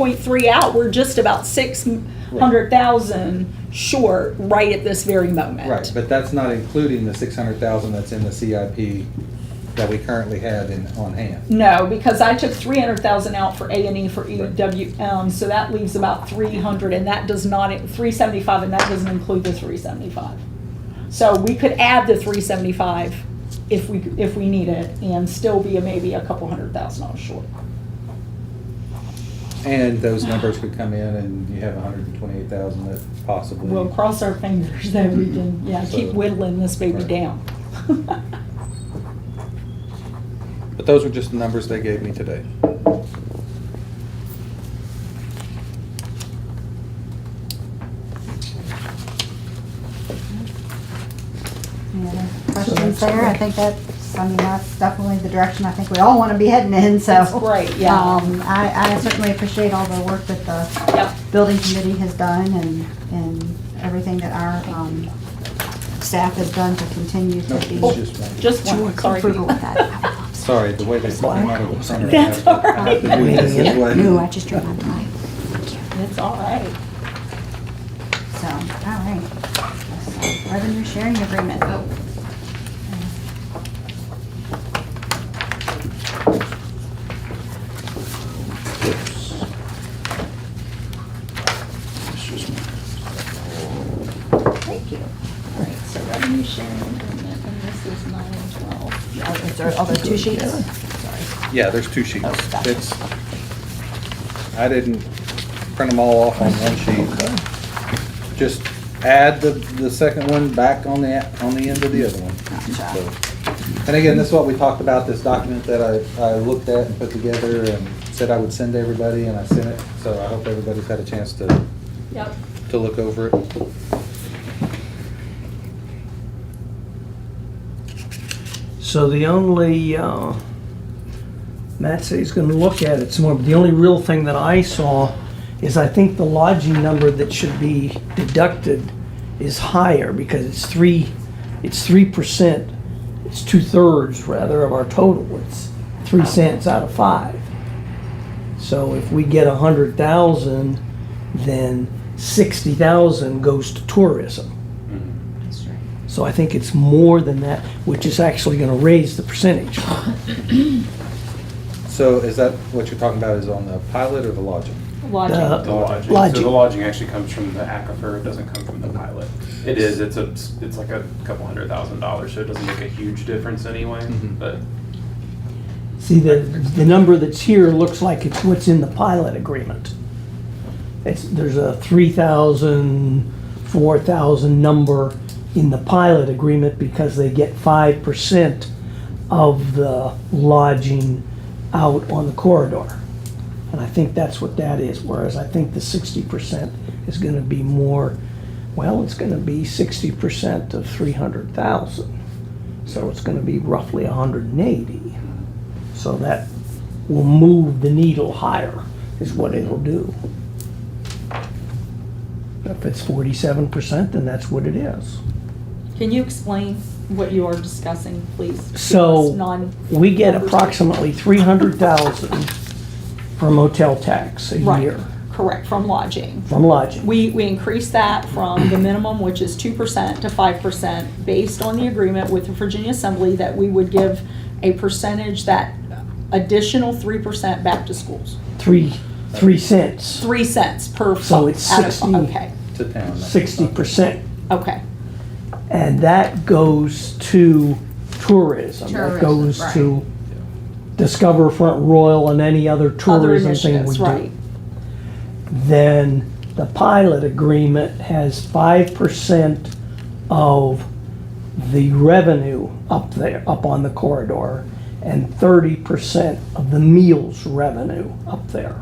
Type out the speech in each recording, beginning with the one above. point three out, we're just about six hundred thousand short right at this very moment. Right, but that's not including the six hundred thousand that's in the CIP that we currently have in, on hand. No, because I took three hundred thousand out for A and E for Right. EWM, so that leaves about three hundred, and that does not, three seventy-five, and that doesn't include the three seventy-five. So we could add the three seventy-five if we, if we need it, and still be a maybe a couple hundred thousand dollars short. And those numbers could come in and you have hundred and twenty-eight thousand that possibly. We'll cross our fingers that we can, yeah, keep So- whittling this baby Right. down. But those were just the numbers they gave me today. Any other Questions there, I think that's, I mean, that's definitely the direction I think we all wanna be heading in, so. That's great, yeah. Um, I, I certainly appreciate all the work that the Yep. building committee has done and, and everything that our, um, staff has done to continue to No, be. it's just one. Oh, Just one, sorry. Frugal with that. Uh, Sorry, the way they put them out of the center. I That's have to- I have alright. to do this this way. No, I just drew my mind. It's all right. So, all right. Revenue sharing agreement. Thank you. All right, so revenue sharing agreement, and this is nine and twelve. Oh, is there- Oh, there's two sheets? Sorry. Yeah, there's two sheets. Oh, gotcha. It's, I didn't print them all off on one sheet. Just add the, the second one back on the, on the end of the other one. Gotcha. So, And again, this is what we talked about, this document that I, I looked at and put together and said I would send to everybody, and I sent it. So I hope everybody's had a chance to, Yep. to look over it. So the only, uh, Matt said he's gonna look at it some more, but the only real thing that I saw is I think the lodging number that should be deducted is higher because it's three, it's three percent, it's two-thirds rather of our total, it's three cents out of five. So if we get a hundred thousand, then sixty thousand goes to tourism. So I think it's more than that, which is actually gonna raise the percentage. So is that what you're talking about is on the pilot or the lodging? Lodging. The lodging. So Lodging. the lodging actually comes from the aquifer, it doesn't come from the pilot. It is, it's a, it's like a couple hundred thousand dollars, so it doesn't make a huge difference anyway, Mhm. but See, the, the number that's here looks like it's what's in the pilot agreement. It's, there's a 3,000, 4,000 number in the pilot agreement because they get 5% of the lodging out on the corridor. And I think that's what that is, whereas I think the 60% is gonna be more, well, it's gonna be 60% of 300,000. So it's gonna be roughly 180. So that will move the needle higher, is what it'll do. If it's forty-seven percent, then that's what it is. Can you explain what you are discussing, please? So- Because Non, We get approximately three hundred thousand for motel tax a right, year correct, from lodging. from lodging. We, we increased that from the minimum, which is two percent to five percent, based on the agreement with the Virginia Assembly that we would give a percentage that additional three percent back to schools. Three, three cents, Three cents per. So it's out of- 60. Okay, To town. sixty percent. okay. And that goes to tourism. That Tourism, goes right. to Discover Front Royal and any other Other tourism thing we initiatives, do. right. then the pilot agreement has five percent of the revenue up there, up on the corridor, and thirty percent of the meals revenue up there.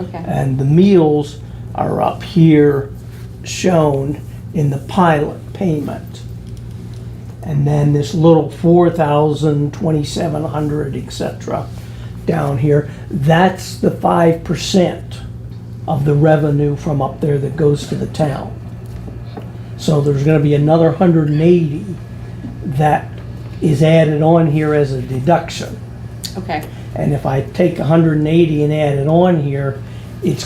Okay, And the meals are up here shown in the pilot payment. And then this little four thousand, twenty-seven hundred, et cetera, down here, that's the five percent of the revenue from up there that goes to the town. So there's gonna be another hundred and eighty that is added on here as a deduction. okay. And if I take 180 and add it on here,